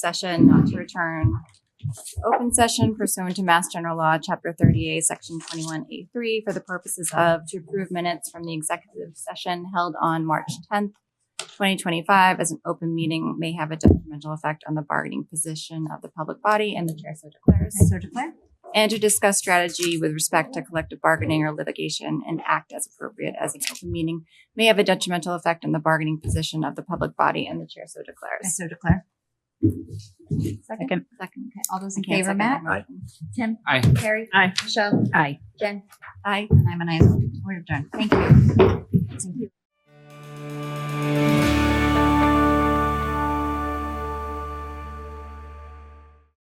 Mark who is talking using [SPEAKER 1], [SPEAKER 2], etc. [SPEAKER 1] session not to return to open session pursuant to Mass General Law, Chapter 38, Section 21A3, for the purposes of to approve minutes from the executive session held on March 10th, 2025, as an open meeting may have a detrimental effect on the bargaining position of the public body, and the chair so declares
[SPEAKER 2] I so declare.
[SPEAKER 1] and to discuss strategy with respect to collective bargaining or litigation and act as appropriate as an open meeting may have a detrimental effect on the bargaining position of the public body and the chair so
[SPEAKER 2] I
[SPEAKER 1] declares.
[SPEAKER 2] so declare.
[SPEAKER 1] Second. Second. Okay. All those in
[SPEAKER 2] Can't
[SPEAKER 1] favor,
[SPEAKER 2] second
[SPEAKER 1] Matt?
[SPEAKER 2] that Tim?
[SPEAKER 3] Aye.
[SPEAKER 2] Carrie?
[SPEAKER 3] Aye.
[SPEAKER 2] Michelle?
[SPEAKER 4] Aye.
[SPEAKER 2] Jen?
[SPEAKER 1] Aye.
[SPEAKER 2] And I'm an aye. as well. We're done. Thank you. Thank you.